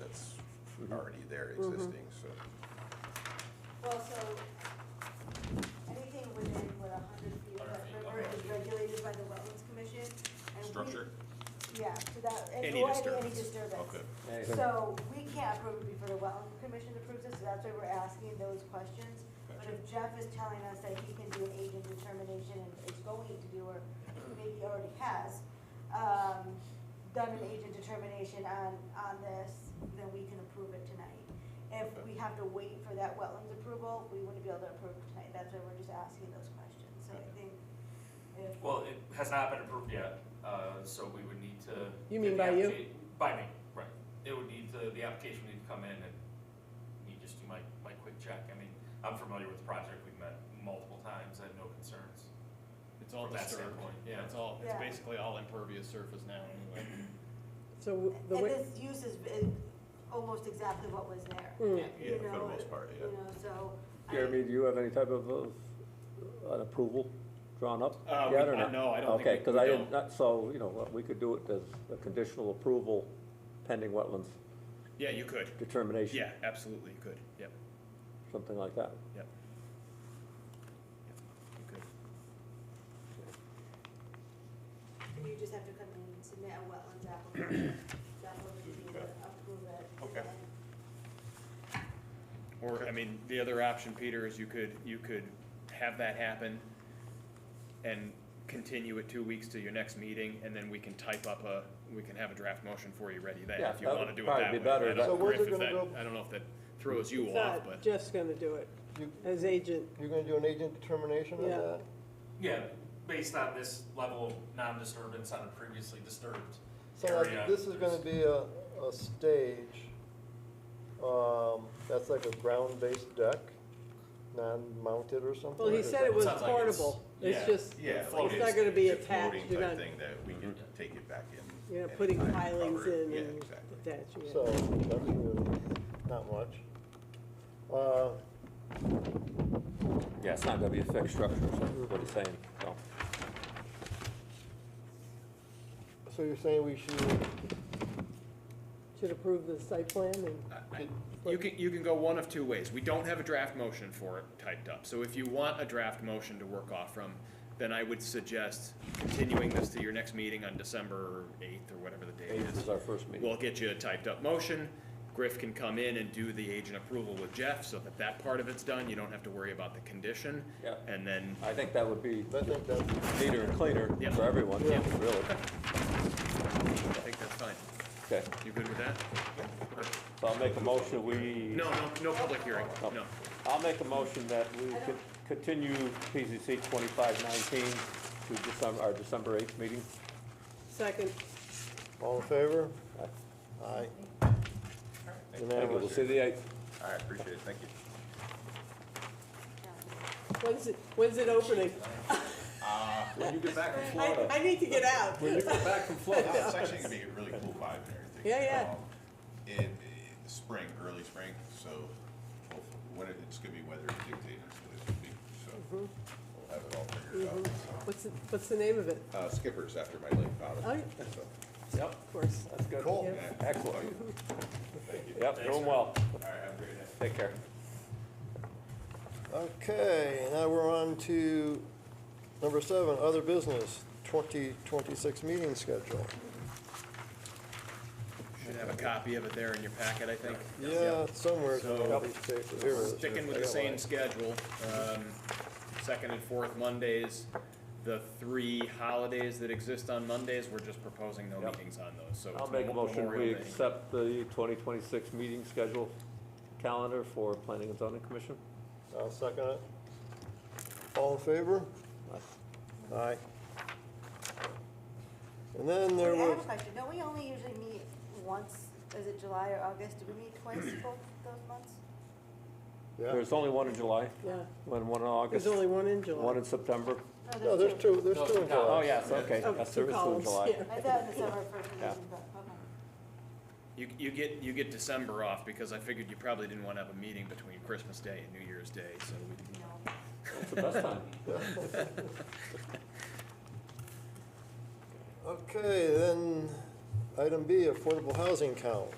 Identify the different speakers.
Speaker 1: that's already there existing, so.
Speaker 2: Well, so anything within, what, a hundred feet of that river is regulated by the Wetlands Commission? and we-
Speaker 1: Structure?
Speaker 2: Yeah, so that, and
Speaker 1: Any
Speaker 2: or any
Speaker 1: disturbance.
Speaker 2: disturbance.
Speaker 1: Okay.
Speaker 3: Anything.
Speaker 2: So we can't approve it before the Wetland Commission approves it, so that's why we're asking those questions. But if Jeff is telling us that he can do an agent determination and is going to do, or maybe already has, um, done an agent determination on, on this, then we can approve it tonight. If we have to wait for that wetlands approval, we wouldn't be able to approve it tonight, that's why we're just asking those questions, so I think if.
Speaker 4: Well, it has not been approved yet, uh, so we would need to.
Speaker 3: You mean
Speaker 4: get the
Speaker 3: by you?
Speaker 4: applica- By me, right. It would need to, the application would need to come in and me just do my, my quick check. I mean, I'm familiar with the project, we've met multiple times, I have no concerns.
Speaker 5: It's all
Speaker 4: From that
Speaker 5: disturbed.
Speaker 4: standpoint, yeah.
Speaker 5: It's all, it's
Speaker 2: Yeah.
Speaker 5: basically all impervious surface now anyway.
Speaker 3: So w- the
Speaker 2: And
Speaker 3: way,
Speaker 2: this use is, is almost exactly what was there.
Speaker 3: Mm.
Speaker 6: Hmm.
Speaker 1: Yeah,
Speaker 2: you
Speaker 1: for the
Speaker 2: know,
Speaker 1: most part, yeah.
Speaker 2: You know, so. I-
Speaker 7: Jeremy, do you have any type of, of an approval drawn up
Speaker 5: Uh,
Speaker 7: yet
Speaker 5: we-
Speaker 7: or
Speaker 5: I-
Speaker 7: not?
Speaker 5: no, I don't think
Speaker 7: Okay,
Speaker 5: we-
Speaker 7: because
Speaker 5: we
Speaker 7: I didn't,
Speaker 5: don't.
Speaker 7: not- so, you know, what, we could do it as a conditional approval pending wetlands
Speaker 5: Yeah, you could.
Speaker 7: determination,
Speaker 5: Yeah, absolutely, you could. Yep,
Speaker 7: something like that.
Speaker 5: yep. Yep, You could.
Speaker 2: And you just have to come in and submit a wetlands application, that will be to approve it.
Speaker 1: Okay.
Speaker 5: Or, I mean, the other option, Peter, is you could, you could have that happen and continue it two weeks to your next meeting, and then we can type up a, we can have a draft motion for you ready then,
Speaker 7: Yeah,
Speaker 5: if you
Speaker 7: that
Speaker 5: wanna
Speaker 7: would
Speaker 5: do it
Speaker 7: probably
Speaker 5: that
Speaker 7: be
Speaker 5: way.
Speaker 7: better.
Speaker 5: I don't know,
Speaker 7: So
Speaker 1: where's it
Speaker 5: Griff, if
Speaker 1: gonna
Speaker 5: that-
Speaker 1: go?
Speaker 5: I don't know if that throws you off,
Speaker 3: thought
Speaker 5: but.
Speaker 3: Jeff's gonna do it
Speaker 1: You-
Speaker 3: as agent.
Speaker 1: You're gonna do an agent determination
Speaker 3: of Yeah. that?
Speaker 4: Yeah, based on this level of non-disturbance on a previously disturbed
Speaker 6: So
Speaker 4: area.
Speaker 6: like, this is gonna
Speaker 4: there's-
Speaker 6: be a, a stage, um, that's like a ground-based deck, non-mounted or something?
Speaker 3: Well, he said it was
Speaker 4: Sounds like it's-
Speaker 3: portable. It's
Speaker 4: yeah,
Speaker 3: just,
Speaker 1: Yeah.
Speaker 3: it's
Speaker 1: like
Speaker 3: not gonna be
Speaker 1: it's a floating
Speaker 3: attached. You're
Speaker 1: type
Speaker 3: not,
Speaker 1: Thing that we can take it back in.
Speaker 3: you're not putting
Speaker 1: anytime,
Speaker 3: pilings
Speaker 1: cover it.
Speaker 3: in
Speaker 1: Yeah,
Speaker 3: and
Speaker 1: exactly.
Speaker 3: attaching it.
Speaker 6: So, that's really not much. Uh,
Speaker 7: Yeah, it's not gonna be a fixed structure, so what he's saying, so.
Speaker 6: so you're saying we should,
Speaker 3: Should approve the site plan and,
Speaker 5: I- I- You can, you can go one of two ways. We don't have a draft motion for it typed up. So if you want a draft motion to work off from, then I would suggest continuing this to your next meeting on December eighth or whatever the date
Speaker 7: Eighth
Speaker 5: is.
Speaker 7: is our first meeting.
Speaker 5: We'll get you a typed up motion. Griff can come in and do the agent approval with Jeff so that that part of it's done. You don't have to worry about the condition.
Speaker 7: Yeah.
Speaker 5: And then,
Speaker 7: I think that would be
Speaker 6: I think that's,
Speaker 7: neater and cleaner
Speaker 5: Yeah.
Speaker 7: for everyone,
Speaker 5: Yeah.
Speaker 7: really.
Speaker 5: I think that's fine.
Speaker 7: Okay,
Speaker 5: You good with that?
Speaker 7: so I'll make a motion, we.
Speaker 5: No, no, no public hearing,
Speaker 7: Oh.
Speaker 5: no.
Speaker 7: I'll make a motion that we could continue PZC twenty-five nineteen to December, our December eighth meeting.
Speaker 3: second,
Speaker 6: all in favor?
Speaker 7: Aye.
Speaker 6: Aye.
Speaker 7: Thank you, we'll
Speaker 6: Unanimous.
Speaker 7: see you the eighth.
Speaker 1: All right, appreciate it, thank you.
Speaker 3: when's it, when's it opening?
Speaker 1: Uh,
Speaker 7: When you get back from
Speaker 3: I, I need to get out.
Speaker 7: When you get back from Florida.
Speaker 1: It's actually gonna be a really cool vibe and everything.
Speaker 3: Yeah, yeah.
Speaker 1: Um, In, in the spring, early spring, so we'll- when it, it's gonna be weather dictated, it's what it's gonna be,
Speaker 3: Mm-hmm.
Speaker 1: so we'll have it all figured out. so.
Speaker 3: What's, the- what's the name of it?
Speaker 1: Uh, Skipper's after my late father.
Speaker 3: Oh, yeah.
Speaker 1: so.
Speaker 7: Yep,
Speaker 3: Of course.
Speaker 7: that's good.
Speaker 1: Cool.
Speaker 3: Yeah.
Speaker 1: man.
Speaker 7: Excellent.
Speaker 1: Thank you.
Speaker 7: Yep, doing well.
Speaker 1: All right, have a great day.
Speaker 7: Take care.
Speaker 6: Okay, now we're on to number seven, other business, twenty twenty-six meeting schedule.
Speaker 5: Should have a copy of it there in your packet, I think.
Speaker 6: Yeah, somewhere. it's
Speaker 5: So-
Speaker 6: gonna be safe. Here it is.
Speaker 5: Sticking with
Speaker 6: I
Speaker 5: the
Speaker 6: got
Speaker 5: same
Speaker 6: mine.
Speaker 5: schedule, um, second and fourth Mondays, the three holidays that exist on Mondays, we're just proposing no
Speaker 7: Yep.
Speaker 5: meetings on those, so.
Speaker 7: I'll
Speaker 5: it's
Speaker 7: make a motion, we
Speaker 5: Memorial Day.
Speaker 7: accept the twenty twenty-six meeting schedule calendar for Planning and Zoning Commission.
Speaker 6: I'll second it. All in favor?
Speaker 7: Aye.
Speaker 6: Aye. And then there
Speaker 2: Wait, I have
Speaker 6: was,
Speaker 2: a question, don't we only usually meet once, is it July or August, do we meet twice both those months?
Speaker 6: yeah,
Speaker 7: There's only one in July,
Speaker 3: Yeah,
Speaker 7: one, one in August,
Speaker 3: there's only one in
Speaker 7: one
Speaker 3: July.
Speaker 7: in September.
Speaker 6: no, there's two, there's two in
Speaker 7: Oh,
Speaker 6: July.
Speaker 7: yes, okay,
Speaker 3: Oh,
Speaker 7: yes,
Speaker 3: two
Speaker 7: there is two in
Speaker 3: columns,
Speaker 7: July.
Speaker 3: yeah.
Speaker 2: I thought it was the summer first
Speaker 7: Yeah.
Speaker 2: meeting, but, okay.
Speaker 5: You, you get, you get December off, because I figured you probably didn't wanna have a meeting between Christmas Day and New Year's Day, so we,
Speaker 2: No.
Speaker 7: It's the best time.
Speaker 6: Okay, then, item B, affordable housing count.